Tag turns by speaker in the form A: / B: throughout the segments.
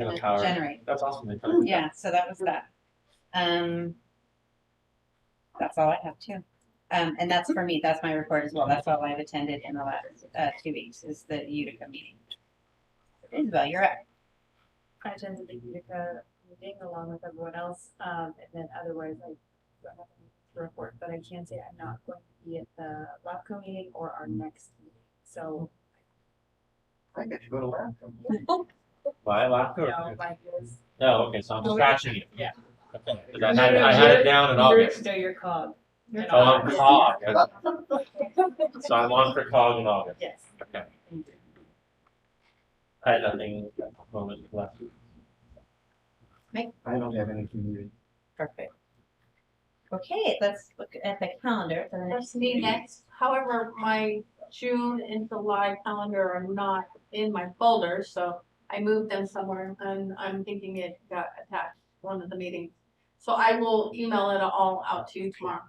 A: Yeah,
B: like,
A: power.
B: generate.
A: That's awesome. They probably-
B: Yeah, so that was that. Um, that's all I have too. Um, and that's for me, that's my report as well. That's all I've attended in the last, uh, two weeks is the Utica meeting. Isabel, you're up.
C: I attended the Utica meeting along with everyone else, um, and then otherwise I don't have anything to report, but I can say I'm not going to be at the LAFCO meeting or our next meeting, so.
D: I guess you go to laugh.
A: Why laugh?
C: You know, like this.
A: No, Oh, okay, so I'm
C: No,
A: just
C: we-
A: scratching it.
C: yeah.
A: Okay, 'cause I had, I had it down in August.
C: No, you're cog. You're
A: Oh, I'm
C: cog.
A: cog. So I'm on for cog in August.
C: Yes.
A: Okay. I had nothing at the moment left.
D: I don't have anything needed.
B: Perfect. Okay, let's look at the calendar for the next
E: That's me
B: meeting.
E: next. However, my June and July calendar are not in my folder, so I moved them somewhere and I'm thinking it got attached to one of the meetings. So I will email it all out to you tomorrow.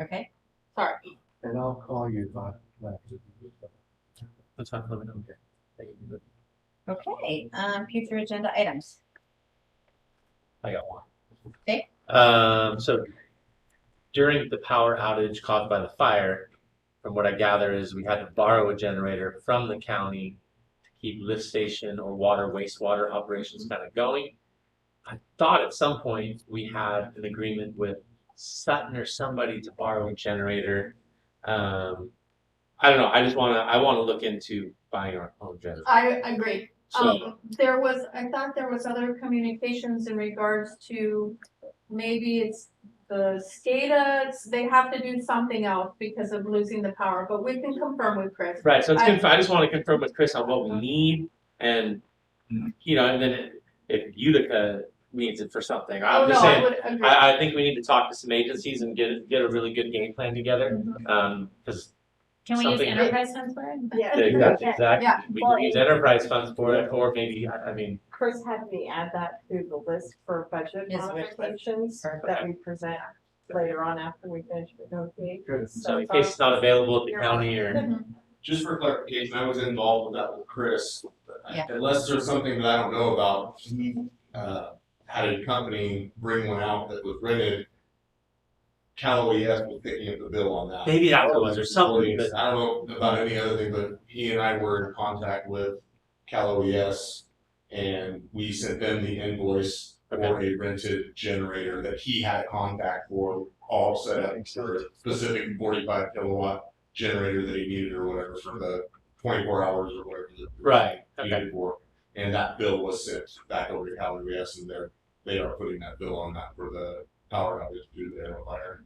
B: Okay,
E: Sorry.
D: And I'll call you if I left.
A: That's fine, let me know. Thank you.
B: okay, um, future agenda items.
A: I got one.
B: Okay.
A: Um, so during the power outage caused by the fire, from what I gather is we had to borrow a generator from the county to keep lift station or water wastewater operations kind of going. I thought at some point we had an agreement with Sutton or somebody to borrow a generator. Um, I don't know. I just wanna I wanna look into buying our own generator.
E: I agree.
A: So
E: Uh, Um, there was, I thought there was other communications in regards to maybe it's the SCADA, they have to do something else because of losing the power, but we can confirm with Chris.
A: Right. So it's
E: I-
A: conf- I just want to confirm with Chris on what we need and, you know, and then if Utica needs it for something,
E: Oh,
A: I'm
E: no,
A: just
E: I
A: saying.
E: would agree.
A: I, I think we need to talk to some agencies and get, get a really good game plan together.
E: Mm-hmm.
A: Um, cause
F: Can we use
A: Something-
F: enterprise funds for it?
E: Yeah.
A: exactly,
E: Yeah.
A: exactly, we can use enterprise funds for it, or maybe, I I mean,
G: Chris had me add that to the list for budget
B: Yes, which list?
G: modifications that we present later on after we finish negotiating.
D: Good.
A: so in case it's not available at the county or,
E: Mm-hmm.
H: Just for clarification, I was involved with that with Chris.
B: Yeah.
H: Unless there's something that I don't know about, he, uh, had a company bring one out that was rented. Cal OES was picking up the bill on that.
A: maybe that was or something, but
H: Please, I don't know about any other thing, but he and I were in contact with Cal OES. And we sent them the invoice for a rented generator that he had contact for, all set up for a specific forty-five kilowatt generator that he needed or whatever for the twenty-four hours or whatever. that he
A: Right, okay.
H: Needed for, and that bill was sent back over to Cal OES and they're, they are putting that bill on that for the power outage due to the fire.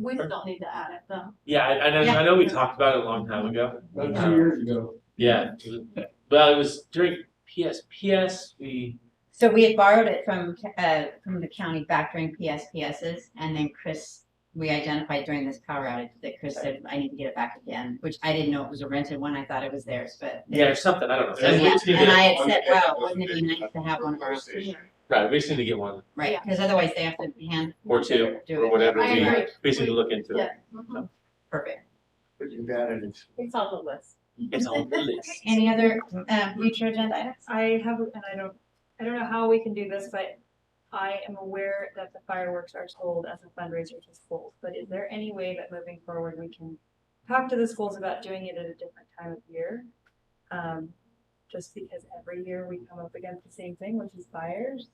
E: We still need to add it though.
A: yeah, I, I know, I know we talked about it a long time ago.
D: About two years ago.
A: Yeah, well, it was during PSPS, we
B: So we had borrowed it from, uh, from the county back during PSPS's and then Chris, we identified during this power outage that Chris said, I need to get it back again, which I didn't know it was a rented one. I thought it was theirs, but.
A: Yeah, or something. I don't know.
B: So,
H: And we
B: yeah,
H: just need
B: and
H: to-
B: I had said, wow, wouldn't it be nice to have one of our,
A: Right, we just need to get one
B: right, because otherwise they have to hand.
A: or two
B: do
A: or
B: it.
A: whatever.
E: I
A: we
E: agree.
A: we just need to look into it.
E: Yeah. Mhm.
B: Perfect.
D: But you got it. It's-
G: It's on the list.
A: It's on the list.
B: Any other, um, future agenda items?
C: I have, and I don't, I don't know how we can do this, but I am aware that the fireworks are sold as a fundraiser to schools, but is there any way that moving forward, we can talk to the schools about doing it at a different time of year? Um, just because every year we come up against the same thing, which is fires.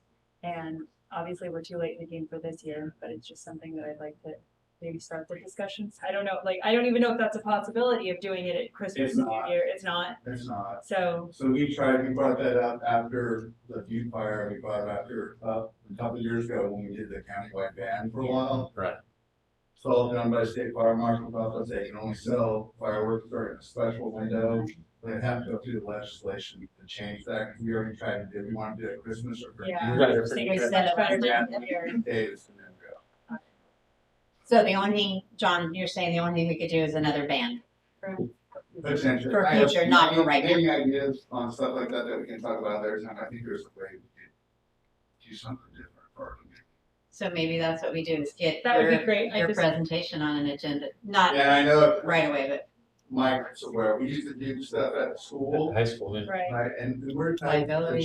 C: And obviously, we're too late in the game for this year, but it's just something that I'd like to maybe start the discussions. I don't know, like, I don't even know if that's a possibility of doing it at Christmas
D: It's
C: and
D: not.
C: New Year. It's not,
D: There's not.
C: so.
D: So we tried, we brought that up after the view fire, we brought it after, uh, a couple of years ago when we did the countywide ban for a while.
A: Right.
D: It's all done by state fire marshal's office, they can only sell fireworks during a special window. They have to go through the legislation to change that, we already tried to do, we wanted to do it at Christmas or. for
C: Yeah.
D: New
A: Right.
D: Year's,
A: Pretty
B: We
A: good.
B: set up our-
D: Yeah. Days and then go.
B: So the only thing, John, you're saying the only thing we could do is another band.
D: Potentially.
B: For
D: I have
B: future, not
D: any-
B: right now.
D: Any ideas on stuff like that that we can talk about there, and I think there's a way we could do something different for our community.
B: So maybe that's what we do is get
C: That would
B: your,
C: be great. I
B: your
C: just,
B: presentation on an agenda, not
D: Yeah, I know
B: right away, but
D: Mike's aware, we used to do stuff at school,
A: High school, yeah.
C: right.
D: right, and we're.
B: Liability.